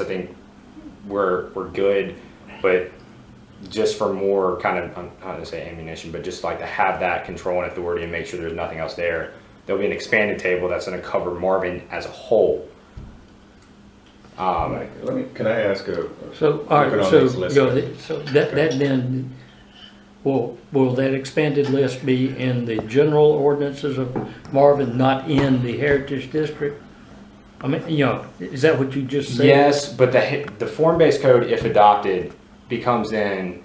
I think we're we're good, but just for more kind of I'm not to say ammunition, but just like to have that control and authority and make sure there's nothing else there. There'll be an expanded table that's going to cover Marvin as a whole. Um, Let me, can I ask a? a- So, all looking right, on so, this list? go ahead. so that, that then, will, will that expanded list be in the general ordinances of Marvin, not in the Heritage District? I mean, you know, is that what you just said? yes, but the the form-based code, if adopted, becomes then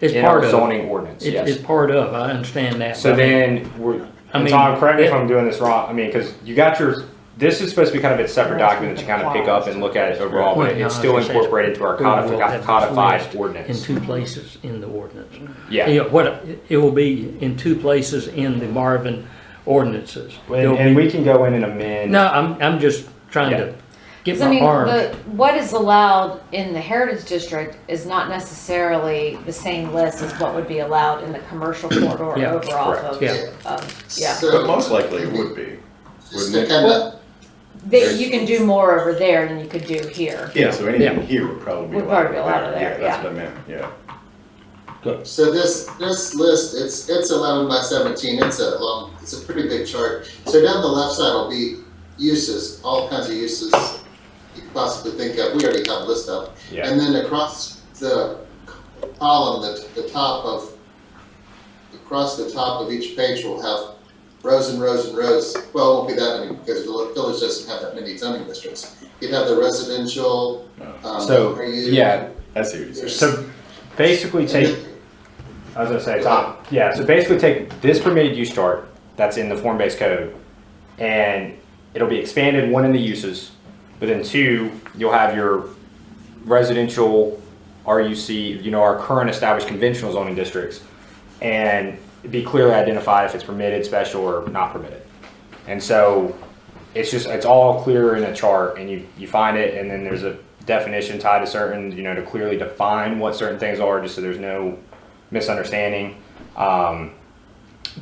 It's in part our of, zoning ordinance. it- yes. it's part of, I understand that. So but I mean, then, we're, I and mean, Tom, correct me if it- I'm doing this wrong, I mean, because you got your, this is supposed to be kind of its separate document that you kind of pick up and look at it overall, Well, but no, it's I still was gonna say it's- incorporated into our we will codified, have this codified list In ordinance. two places in the ordinance. Yeah, Yeah, what, it will be in two places in the Marvin ordinances. and, There'll and be- we can go in and amend. No, I'm, I'm just trying Yeah. to get 'Cause, I my mean, arms. the, what is allowed in the Heritage District is not necessarily the same list as what would be allowed in the commercial corridor Yeah, over off correct, of, yeah. of, yeah. But most likely it would be. Just wouldn't to it? kind of, That you can do more over there than you could do here. Yeah, so anything Yeah. here would probably be. Would probably be allowed allowed there, That's yeah. what I meant, yeah. so this, this list, it's, it's eleven by seventeen, it's a long, it's a pretty big chart. So down the left side will be uses, all kinds of uses you could possibly think of, we already have a list of. Yeah. And then across the column, the, the top of, across the top of each page will have rows and rows and rows, well, it won't be that many, because the village doesn't have that many zoning districts. You'd have the residential, um. So, are you- yeah, I see what you're saying. so basically take, I was gonna say, Tom, yeah, so basically take this permitted use chart that's in the form-based code, and it'll be expanded, one in the uses, but then two, you'll have your residential, RUC, you know, our current established conventional zoning districts, and be clearly identified if it's permitted, special, or not permitted. And so it's just, it's all clear in a chart and you, you find it and then there's a definition tied to certain, you know, to clearly define what certain things are, just so there's no misunderstanding. Um,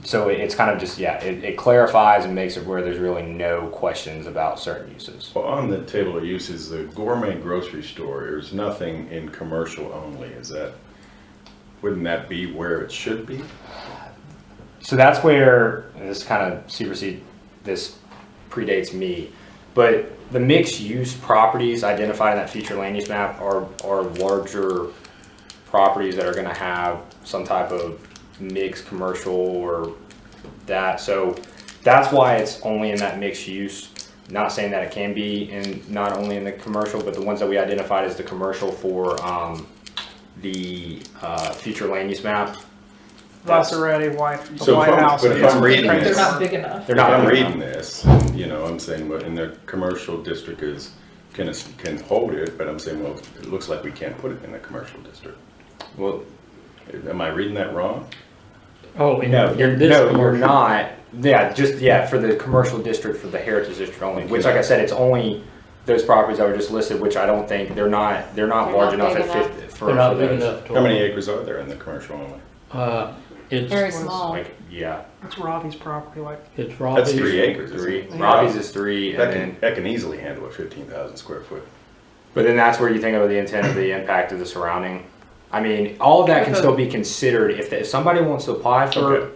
so it- it's kind of just, yeah, it, it clarifies and makes it where there's really no questions about certain uses. Well, on the table of uses, the gourmet grocery store, there's nothing in commercial only, is that, wouldn't that be where it should be? so that's where and this kind of supersede this predates me but the mixed use properties identified in that future land use map are are larger properties that are going to have some type of mixed commercial or that so that's why it's only in that mixed use not saying that it can be in not only in the commercial but the ones that we identified as the commercial for um, the uh, future land use map That's- Maserati White, the So if White I'm- House. but if is I'm reading right this- They're there. not big enough. they're If not I'm big enough. reading this, you know, I'm saying, well, in the commercial district is, can, can hold it, but I'm saying, well, it looks like we can't put it in the commercial district. well Am I reading that wrong? Oh, in No, you're, in this no, you're commercial. not. Yeah, just yeah for the commercial district for the heritage district only. Which, like I said, it's only those properties that were just listed, which I don't think they're not they're not They're large not enough big at enough. 50 for, They're not for big those. enough to. How many acres are there in the commercial only? Uh, Very it's, small. Like yeah, It's Robbie's property, like, it's That's three Robbie's. acres. isn't three. it? Robbie's is three, That and can, then that can easily handle a fifteen thousand square foot. but then that's where you think of the intent of the impact of the surrounding. I mean, all of that can still be considered if, the, if somebody wants to apply for. Okay.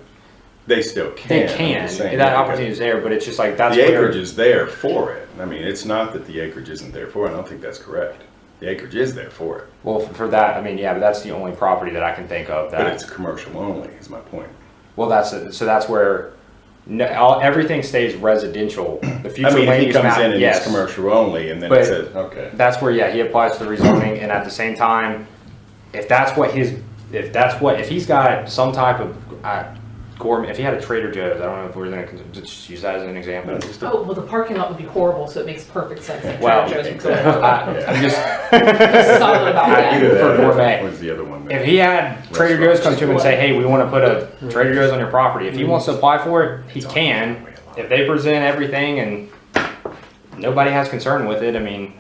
They still can. They I'm can. just saying, that yeah, okay. opportunity is there, but it's just like that's The where- acreage is there for it. I mean, it's not that the acreage isn't there for it. I don't think that's correct. The acreage is there for it, Well, for for that, I mean, yeah, but that's the only property that I can think of that. but it's commercial only, is my point. Well, that's so. That's where no, all, everything stays residential. The future I mean, land if he use comes map, in and yes. it's commercial only and then But- it says, okay. That's where yeah, he applies to the rezoning, and at the same time, if that's what his, if that's what, if he's got some type of uh, gourmet, if he had a Trader Joe's, I don't know if we're gonna con- just use that as an example. No, just a- Oh, well, the parking lot would be horrible, so it makes perfect sense. that Well, Trader Joe's would go exactly. there. I, I'm just Solid about I that. do. For That gourmet. Was the other one. if he had Trader Joe's come to him and say, hey, we want to put a Trader Joe's on your property. If he wants to apply for it, he can. If they present everything and nobody has concern with it, I mean,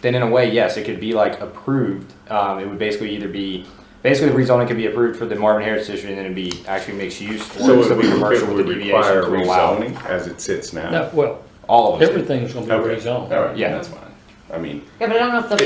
then in a way, yes, it could be like approved. Um, it would basically either be, basically the rezoning could be approved for the Marvin Heritage District and then it'd be actually mixed use. or So it's it gonna would be commercial with it would the deviation require to allow rezoning as it sits now? No, well, all of them. everything's gonna be Okay. rezoned. All right, Yeah. yeah, that's fine. I mean, Yeah, but I don't know if the